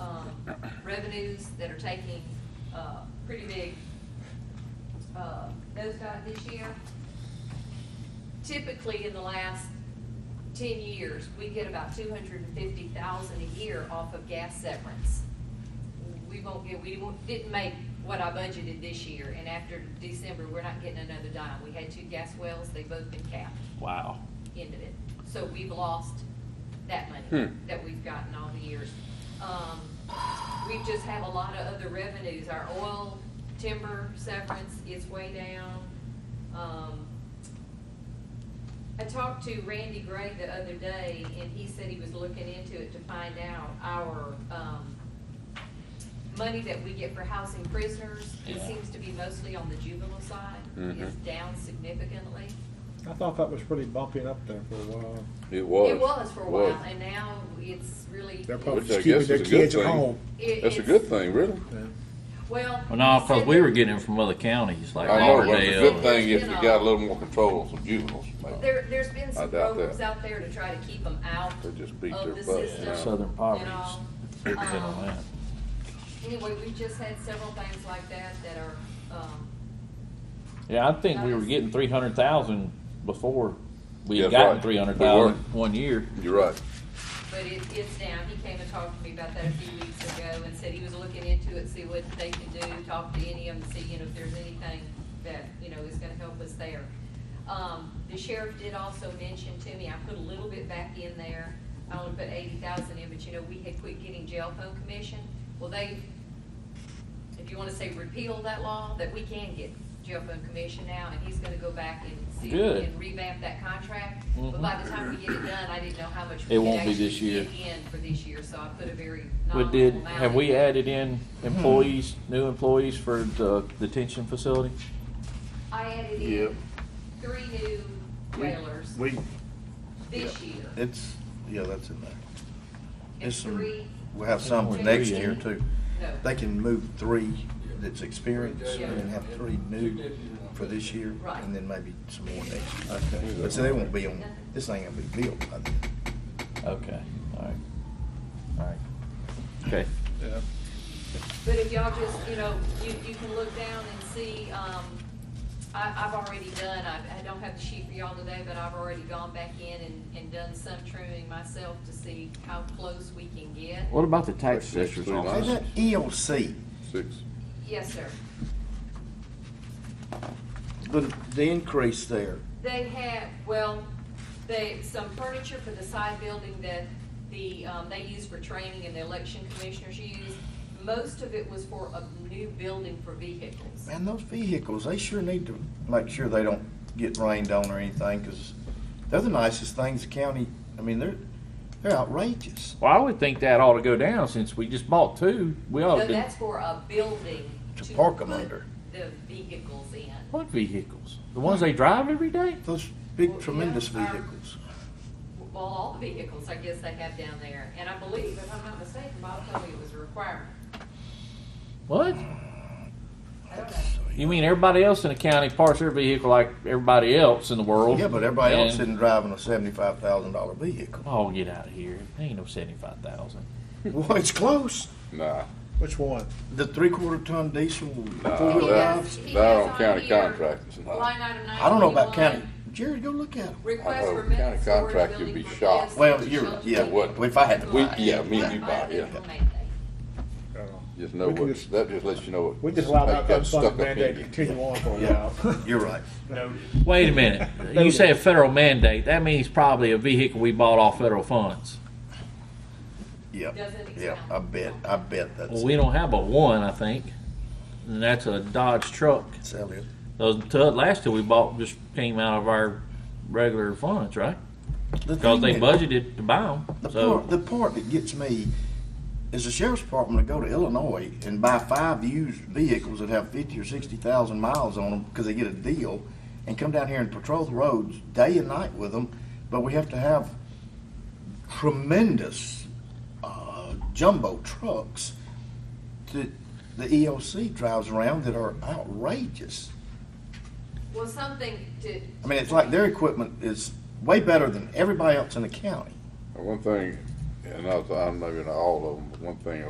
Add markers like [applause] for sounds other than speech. um, revenues that are taking, uh, pretty big, uh, nosedive this year. Typically, in the last ten years, we get about two hundred and fifty thousand a year off of gas severance. We won't get, we won't- didn't make what I budgeted this year, and after December, we're not getting another dime. We had two gas wells, they've both been capped Wow. into it. So we've lost that money Hmm. that we've gotten all the years. Um, we just have a lot of other revenues. Our oil, timber severance is way down. Um, I talked to Randy Gray the other day, and he said he was looking into it to find out our, um, money that we get for housing prisoners. It Yeah. seems to be mostly on the juvenile side, is Mhm. down significantly. I thought that was pretty bumping up there for a while. It was. It was for a was. while, and now it's really. They're probably Which I just guess keeping their is a good kids at thing. home. it- That's a it's- good thing, really. Well. Well, no, he because said we that were getting them from other counties, like I know, but it's a Lauderdale. good thing if you got a little more control on some juveniles. man. There, there's been I some doubt programs that. out there to try to keep them out They just beat of their the butts. system. now. and Southern poverty. You It know, was in on um, that. Anyway, we've just had several things like that that are, um, Yeah, I think we were getting three hundred thousand before we had That's gotten right. three hundred We were. thousand one year. You're right. but it, it's down. He came and talked to me about that a few weeks ago and said he was looking into it, see what they can do, talk to any of them, see, you know, if there's anything that, you know, is gonna help us there. Um, the sheriff did also mention to me, I put a little bit back in there. I only put eighty thousand in, but you know, we had quit getting jail phone commission. Well, they if you wanna say repeal that law, that we can get jail phone commission now, and he's gonna go back and see if Good. he can revamp that contract. But by the time we get it done, I didn't know how much we It could won't be actually this year. get in for this year, so I put a very But nominal did, amount. have we added in Hmm. employees, new employees for the detention facility? I added Yep. in three new trailers We, this year. it's, yeah, that's in there. And It's some- three, We'll have some for next year too. no, They can move three that's experienced Yeah. and have three new for this year Right. and then maybe some more next year. Okay. But so they won't be on, this ain't gonna be built by then. Okay, all right, all right. Okay, but if y'all just, you know, you, you can look down and see, um, I, I've already done, I, I don't have the sheet for y'all today, but I've already gone back in and, and done some trimming myself to see how close we can get. what about the tax assessor's Three Is office? that ELC? Six. Yes, sir. The, the increase there, They had, well, they, some furniture for the side building that the, um, they use for training and the election commissioners use. Most of it was for a new building for vehicles. man, those vehicles, they sure need to make sure they don't get rained on or anything, cause they're the nicest things the county, I mean, they're, they're outrageous. Well, I would think that ought to go down since we just bought two. We ought No, to do, Oh, that's for a building Oh, To to park 'em put under. The vehicles in. what vehicles? The ones they drive every day? Those Well, big yeah, tremendous our- vehicles. Well, all the vehicles, I guess they have down there. And I believe, if I'm not mistaken, Bob told me it was a requirement. What? I don't know. You mean everybody else in the county parks their vehicle like everybody else in the world? Yeah, but everybody else Oh. And- isn't driving a seventy-five thousand dollar vehicle. [laughs] Oh, get out of here. Ain't no seventy-five thousand. Well, it's close. Nah. Which one? The three-quarter ton diesel, Nah, four-wheel He has- drives. he Not has on county here contract, it's not. Line item nine. I don't know about county. Jared, go look at them. I Request know, for county minutes. storage contract, building you'd be for shocked. guests, Well, shelter you're, for yeah, What? if I had to We- buy it. yeah, me and you buy, yeah. Just know We can what, just- that just lets you know what. We just allowed they that got stuck unfunded up mandate in to you. continue on for a Yeah, [laughs] while. you're right. Wait a [laughs] minute. You say a federal mandate. That means probably a vehicle we bought off federal funds. Yeah, Doesn't it yeah, sound- I bet, I bet Well, that's we don't have but one, I think. And that's a Dodge truck. sell it. Those two, last two we bought just came out of our regular funds, right? The Because thing they that- budgeted to buy Mm-hmm. The them. So, part, the part that gets me is the sheriff's department to go to Illinois and buy five used vehicles that have fifty or sixty thousand miles on them because they get a deal, and come down here and patrol the roads day and night with them. But we have to have tremendous uh, jumbo trucks that the EOC drives around that are outrageous. Well, something to, I mean, it's like their equipment is way better than everybody else in the county. And One thing, and I, I'm maybe not all of them, but one thing